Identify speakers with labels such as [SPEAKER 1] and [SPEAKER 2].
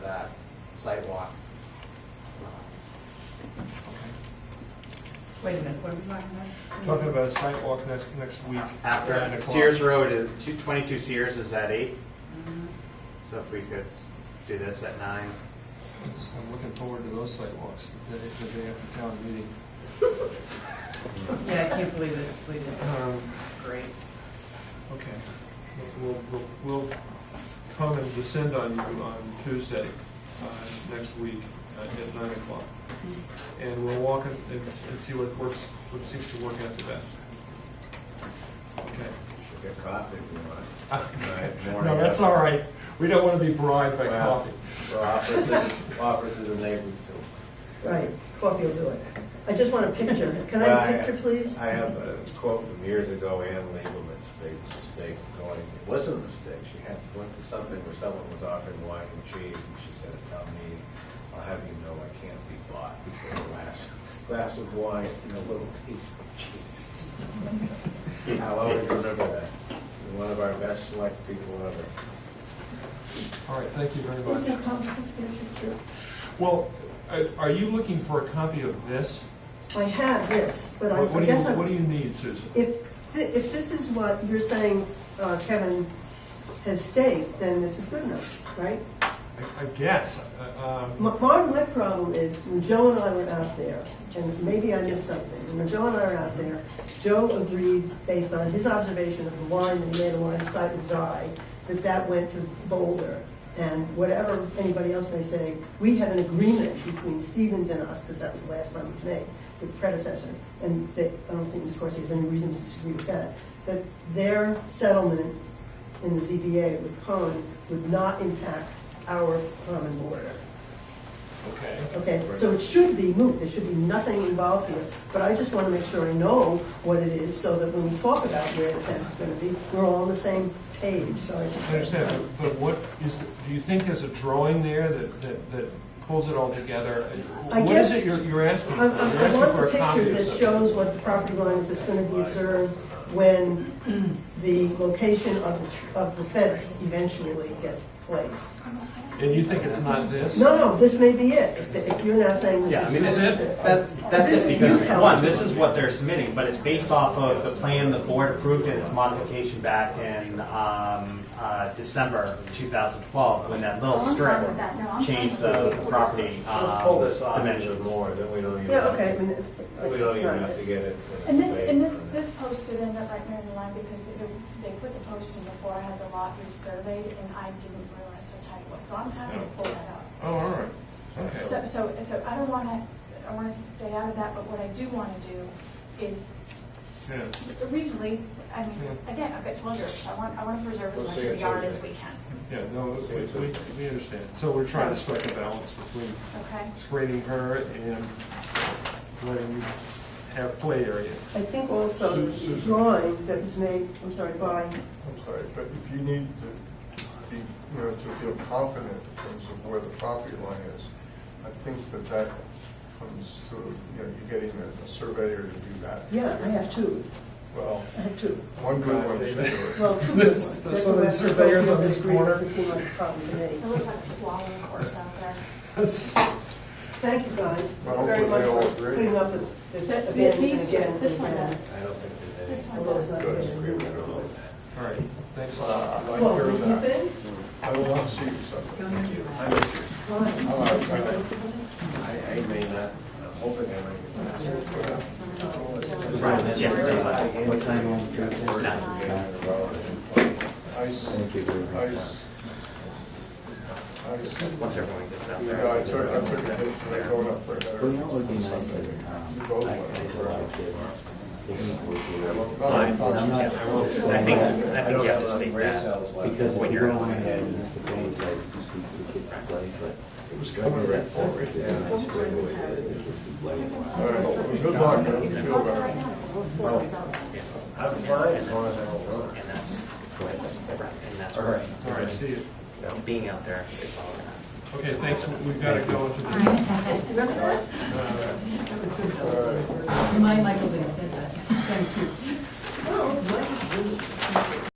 [SPEAKER 1] sidewalk.
[SPEAKER 2] Wait a minute, what are we talking about?
[SPEAKER 3] Talking about a site walk next, next week. at nine
[SPEAKER 1] After
[SPEAKER 3] o'clock.
[SPEAKER 1] Sears Road is, two- 22 Sears is at eight,
[SPEAKER 4] Mm-hmm.
[SPEAKER 1] so if we could do this at nine.
[SPEAKER 3] It's- I'm looking forward to those site walks, the day, the day after town meeting.
[SPEAKER 2] Yeah, I can't believe it, believe it.
[SPEAKER 1] Uh-huh.
[SPEAKER 3] Um,
[SPEAKER 2] Great.
[SPEAKER 3] Okay. We'll, we'll, we'll come and descend on you on Tuesday, uh, next week, uh, at nine o'clock. And we'll walk and, and and see what works, what seems to work out the best. Okay.
[SPEAKER 5] Should get coffee if you want.
[SPEAKER 3] No, that's all right. We don't want to be bribed by
[SPEAKER 5] Well,
[SPEAKER 3] coffee.
[SPEAKER 5] We'll offer it to, offer it to the neighbors
[SPEAKER 6] Right, coffee will do it. I just want a picture.
[SPEAKER 5] too.
[SPEAKER 6] Can I
[SPEAKER 5] Well,
[SPEAKER 6] have a picture, please?
[SPEAKER 5] I have a quote from years ago, Ann Leibowitz made a mistake going, it wasn't a mistake. She had, went to something where someone was offering wine and cheese, and she said, tell me, I'll have you know I can't be bought for a glass, glass of wine and a little piece of cheese. I'll always remember that. One of our best select people ever.
[SPEAKER 3] All right, thank you very
[SPEAKER 6] Is
[SPEAKER 3] much.
[SPEAKER 6] it possible to get a picture?
[SPEAKER 3] Well, are- are you looking for a copy of this?
[SPEAKER 6] I have this, but I
[SPEAKER 3] What what
[SPEAKER 6] I
[SPEAKER 3] do you,
[SPEAKER 6] guess
[SPEAKER 3] what do
[SPEAKER 6] I,
[SPEAKER 3] you need, Susan?
[SPEAKER 6] if, thi- if this is what you're saying uh, Kevin has staked, then this is good enough, right?
[SPEAKER 3] I I guess. uh, um,
[SPEAKER 6] My, my my problem is, when Joe and I were out there, and maybe I missed something, when Joe and I were out there, Joe agreed, based on his observation of the line, and he made a line sight with his eye, that that went to Boulder. And whatever anybody else may say, we have an agreement between Stevens and us, because that was the last time we made, the predecessor, and that, I don't think Ms. Corsi has any reason to disagree with that, that their settlement in the ZBA with Cohen would not impact our common border.
[SPEAKER 3] Okay.
[SPEAKER 6] Okay, so it should be moot, there should be nothing involved here, but I just want to make sure I know what it is, so that when we talk about where the fence is going to be, we're all on the same page, so I just...
[SPEAKER 3] I understand, but- but what is, the- do you think there's a drawing there that, that, that pulls it all together?
[SPEAKER 6] I
[SPEAKER 3] What is
[SPEAKER 6] guess-
[SPEAKER 3] it you're, you're asking for?
[SPEAKER 6] I-
[SPEAKER 3] You're
[SPEAKER 6] I I
[SPEAKER 3] asking
[SPEAKER 6] want
[SPEAKER 3] for
[SPEAKER 6] the
[SPEAKER 3] a copy
[SPEAKER 6] picture
[SPEAKER 3] of
[SPEAKER 6] that
[SPEAKER 3] something.
[SPEAKER 6] shows what the property line is that's going to be observed when the location of the, tr- of the fence eventually gets placed.
[SPEAKER 3] And you think it's not this?
[SPEAKER 6] No, no, this may be it, if- if you're now saying
[SPEAKER 1] Yeah, I
[SPEAKER 6] this is...
[SPEAKER 1] mean,
[SPEAKER 3] This is it?
[SPEAKER 1] That's, that's
[SPEAKER 6] This
[SPEAKER 1] it
[SPEAKER 6] is you
[SPEAKER 1] because,
[SPEAKER 6] telling
[SPEAKER 1] one,
[SPEAKER 6] me.
[SPEAKER 1] this is what they're submitting, but it's based off of the plan the board approved in its modification back in um, uh, December 2012, when that little
[SPEAKER 4] Oh, I'm
[SPEAKER 1] strip
[SPEAKER 4] fine with that. No, I'm fine
[SPEAKER 1] changed the
[SPEAKER 4] with that.
[SPEAKER 1] the property
[SPEAKER 5] We'll
[SPEAKER 1] um,
[SPEAKER 5] Pull this off even
[SPEAKER 1] dimensions.
[SPEAKER 5] more, then we don't even.
[SPEAKER 6] Yeah, okay, I mean...
[SPEAKER 5] We don't even have to get it.
[SPEAKER 4] And this, and this, this post did end up right near the line because it- they put the post in before I had the lot resurveyed and I didn't realize the title. So I'm happy to pull that up.
[SPEAKER 3] Oh, all right,
[SPEAKER 4] So,
[SPEAKER 3] okay.
[SPEAKER 4] so, so I don't want to, I want to stay out of that, but what I do want to do is
[SPEAKER 3] Yeah.
[SPEAKER 4] reasonably, I mean, again, I've got pleasures. I want, I want to preserve as
[SPEAKER 5] We'll
[SPEAKER 4] much
[SPEAKER 5] see
[SPEAKER 4] of the
[SPEAKER 5] it
[SPEAKER 4] yard
[SPEAKER 5] later.
[SPEAKER 4] as we can,
[SPEAKER 3] Yeah, no, we, we, we understand. So we're trying to strike a balance between
[SPEAKER 4] okay?
[SPEAKER 3] screening her and letting you have play area.
[SPEAKER 6] I think also
[SPEAKER 7] Su-
[SPEAKER 6] the
[SPEAKER 7] Susan.
[SPEAKER 6] drawing that was made, I'm sorry, by,
[SPEAKER 7] I'm sorry, but if you need to be, you know, to feel confident in terms of where the property line is, I think that that comes through, you know, you're getting a- a surveyor to do that.
[SPEAKER 6] yeah, I have two,
[SPEAKER 7] Well,
[SPEAKER 6] I have two.
[SPEAKER 7] one good one should do it.
[SPEAKER 6] Well, two good
[SPEAKER 3] This-
[SPEAKER 6] ones.
[SPEAKER 3] so
[SPEAKER 6] That's
[SPEAKER 3] some of
[SPEAKER 6] what
[SPEAKER 3] these
[SPEAKER 6] I was
[SPEAKER 3] surveyors
[SPEAKER 6] hoping
[SPEAKER 3] on
[SPEAKER 6] to
[SPEAKER 3] this
[SPEAKER 6] agree with.
[SPEAKER 3] corner.
[SPEAKER 6] It seemed like a problem to me.
[SPEAKER 4] It looks like a slalom course out there.
[SPEAKER 6] Thank you guys
[SPEAKER 7] Well,
[SPEAKER 6] very much
[SPEAKER 7] hopefully they all
[SPEAKER 6] for
[SPEAKER 7] agree.
[SPEAKER 6] putting up with this
[SPEAKER 4] But
[SPEAKER 6] again and
[SPEAKER 4] these-
[SPEAKER 6] again.
[SPEAKER 4] This one
[SPEAKER 6] and again.
[SPEAKER 4] does.
[SPEAKER 5] I don't think there's
[SPEAKER 4] This
[SPEAKER 5] any.
[SPEAKER 4] one
[SPEAKER 6] Although it's
[SPEAKER 4] does.
[SPEAKER 6] not
[SPEAKER 5] Good
[SPEAKER 6] really
[SPEAKER 5] agreement
[SPEAKER 6] agreeable.
[SPEAKER 5] on that.
[SPEAKER 3] All right, thanks a lot.
[SPEAKER 7] Uh, I like
[SPEAKER 6] Well,
[SPEAKER 7] your
[SPEAKER 6] you
[SPEAKER 7] that.
[SPEAKER 6] been?
[SPEAKER 7] I will not see you something.
[SPEAKER 6] Fine.
[SPEAKER 7] All right, all right.
[SPEAKER 5] I, I may not, I'm hoping I
[SPEAKER 1] Yeah, pretty much.
[SPEAKER 5] might. What time will you
[SPEAKER 7] Ice. Ice. Ice.
[SPEAKER 1] Once everyone gets out
[SPEAKER 7] You
[SPEAKER 1] there.
[SPEAKER 7] know, I took, I took a hit for going up for a better.
[SPEAKER 8] Well, that would be nice
[SPEAKER 7] Sunday.
[SPEAKER 8] if, um,
[SPEAKER 7] You both
[SPEAKER 8] I
[SPEAKER 7] went
[SPEAKER 8] I
[SPEAKER 7] up
[SPEAKER 8] had
[SPEAKER 7] for
[SPEAKER 8] a
[SPEAKER 7] a-
[SPEAKER 8] lot of kids. They couldn't work with
[SPEAKER 7] I
[SPEAKER 8] it.
[SPEAKER 7] won't-
[SPEAKER 8] But
[SPEAKER 7] I won't-
[SPEAKER 8] I'm not-
[SPEAKER 1] I think, I think you have to state that.
[SPEAKER 8] Because
[SPEAKER 1] when
[SPEAKER 8] when
[SPEAKER 1] you're-
[SPEAKER 8] you're on ahead, and it's the days I used to see the kids play, but.
[SPEAKER 5] It was coming right forward.
[SPEAKER 8] Yeah, I just played with it, the kids would play a
[SPEAKER 7] All
[SPEAKER 8] lot.
[SPEAKER 7] right, well, good luck, I hope you feel better.
[SPEAKER 5] I'm fine as long as I don't run.
[SPEAKER 1] And that's, and that's
[SPEAKER 5] All right.
[SPEAKER 3] All right, see you.
[SPEAKER 1] being out there, it's all around.
[SPEAKER 3] Okay, thanks, we've got to go into the. Uh,
[SPEAKER 7] All right.
[SPEAKER 2] My Michael Lee says that, thank you.
[SPEAKER 6] Oh, my goodness.